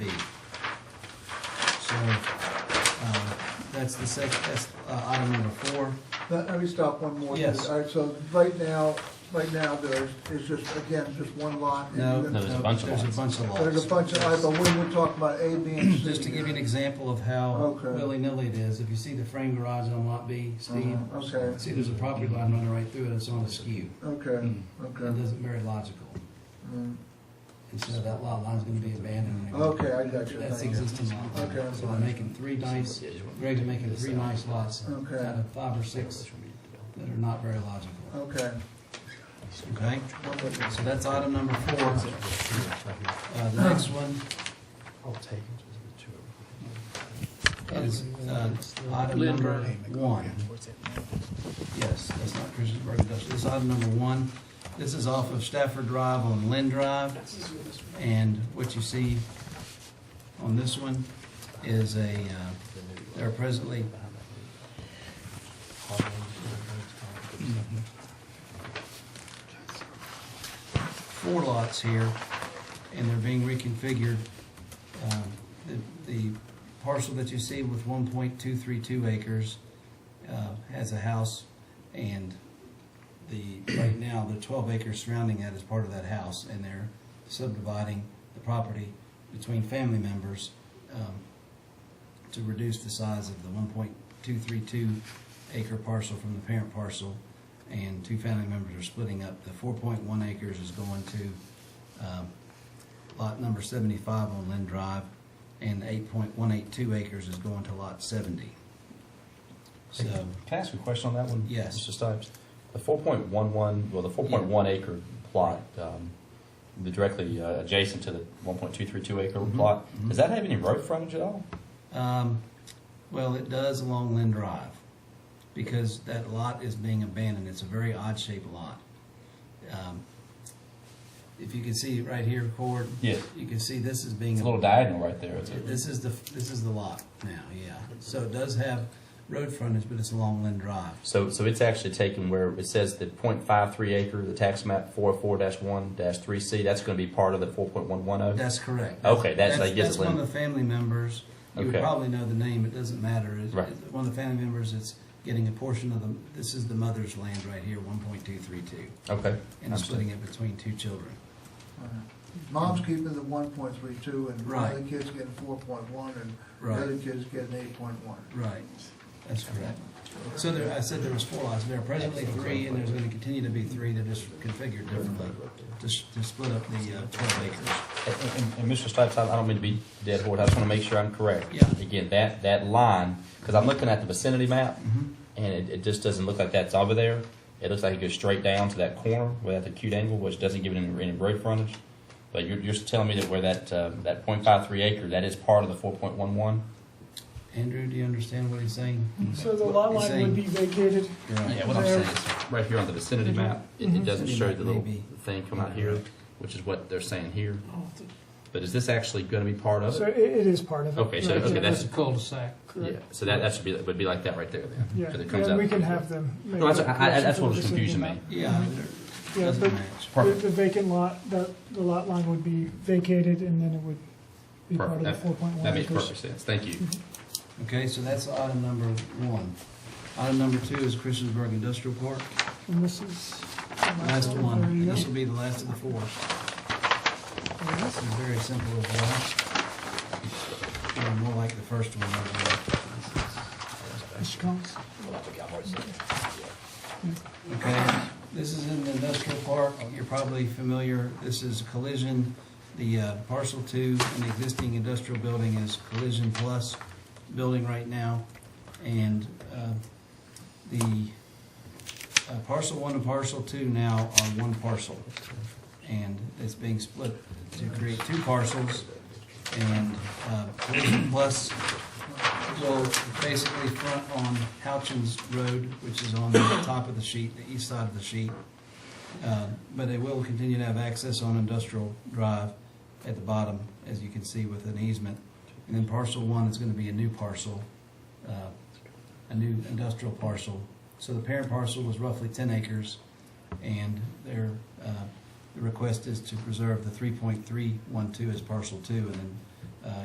uh, That's the sec, that's uh, item number four. Let let me stop one more. Yes. All right, so right now, right now, there is just, again, just one lot. and No. then- No, there's a bunch of There's lots. a bunch of lots. There's a bunch of, all right, but we were talking about A, B, and C. Just to give you an example of how Okay. willy-nilly it is, if you see the frame garage on lot B, Steve, Uh, Okay, see there's a property line running right through it, it's on a skew. okay, It okay. doesn't very logical. Mm. And so that lot line's gonna be abandoned. Okay, I got you. That's the Thank you. existing lot. line. Okay. So they're making three nice, Greg's making three nice lots out Okay. of five or six that are not very logical. Okay. Okay? One more. So that's item number four. Uh, the next one I'll take it. is, uh, item number one. Yes, that's not Christiansburg Industrial. This is item number one. This is off of Stafford Drive on Lynn Drive. And what you see on this one is a, uh, there are presently four lots here, and they're being reconfigured. Um, the- The parcel that you see with 1.232 acres uh, has a house, and the, right now, the 12 acres surrounding that is part of that house, and they're subdividing the property between family members um, to reduce the size of the 1.232 acre parcel from the parent parcel and two family members are splitting up. The four point one acres is going to, um, lot number seventy-five on Lynn Drive, and the eight point one eight two acres is going to lot seventy. So, Can I ask a question on that one? Yes. Mr. Stipes? The four point one one, well, the four point one acre plot, um, the directly uh, adjacent to the one point two three two acre Mhm, plot, mhm. does that have any road frontage at all? um, well, it does along Lynn Drive, because that lot is being abandoned, it's a very odd shaped lot. Um, If you can see it right here, Cord, Yes. you can see this is being. It's a little diagonal right there. It's a- This is the, this is the lot now, yeah. So it does have road frontage, but it's along Lynn Drive. So, so it's actually taken where it says the point five three acre, the tax map four oh four one three C, that's gonna be part of the four point one one oh? That's correct. Okay, that's- I guess That's it one of the wouldn't- family members. You would Okay. probably know the name, it doesn't matter. It's- Right. it's One of the family members is getting a portion of the, this is the mother's land right here, one point two three two. Okay. And Understood. splitting it between two children. All right. Mom's keeping the one point three two, and the Right. other kid's getting four point one, and the Right. other kid's getting eight point one. Right, that's correct. So there, I said there was four lots, there are presently three, and there's gonna continue to be three, they're just configured differently to, s- to split up the uh, twelve acres. And, and- and Mr. Stipes, I I don't mean to be dead horse, I just want to make sure I'm correct. Yeah. Again, that, that line, because I'm looking at the vicinity map, Mhm. and it, it just doesn't look like that's over there. It looks like it goes straight down to that corner without the acute angle, which doesn't give it any, any road frontage. But you're, you're telling me that where that, uh, that point five three acre, that is part of the four point one one? Andrew, do you understand what he's saying? So the lot He's line saying- would be vacated. Yeah, what I'm saying is, right here on the vicinity map, it, it doesn't Mm-hmm. Vicinity show map the little may be- thing come out here, which is what they're saying here. But is this actually going to be part of So it? it, it is part of it. Okay, so, Right, okay, yeah. that's, Cul-de-sac, yeah, correct? so that, that should be, would be like that right there then. 'cause it comes Yeah, and out- we can have them. make No, that's, that I, I, that's correction what for was the confusing me. second map. Yeah, there- Yeah, Mm-hmm. doesn't but- match. The Perfect. the vacant lot, the, the lot line would be vacated and then it would be part of the Perfect. four point one That makes acres. perfect sense. Thank you. Okay, so that's item number one. Item number two is Christiansburg Industrial Park, And this is. the last one, There you and go. this will be the last of the four. There it is. This is very simple as well. Yeah, More like the first one. over there. Mr. Collins? Okay, this is in the industrial park, you're probably familiar, this is collision, the uh, parcel two, an existing industrial building is collision plus building right now, and uh, the uh, parcel one and parcel two now are one parcel, and it's being split to create two parcels, and uh, collision plus will basically front on Houchins Road, which is on the top of the sheet, the east side of the sheet. Uh, But they will continue to have access on Industrial Drive at the bottom, as you can see with an easement. And then parcel one is gonna be a new parcel, uh, a new industrial parcel. So the parent parcel was roughly ten acres, and their, uh, the request is to preserve the three point three one two as parcel two, and then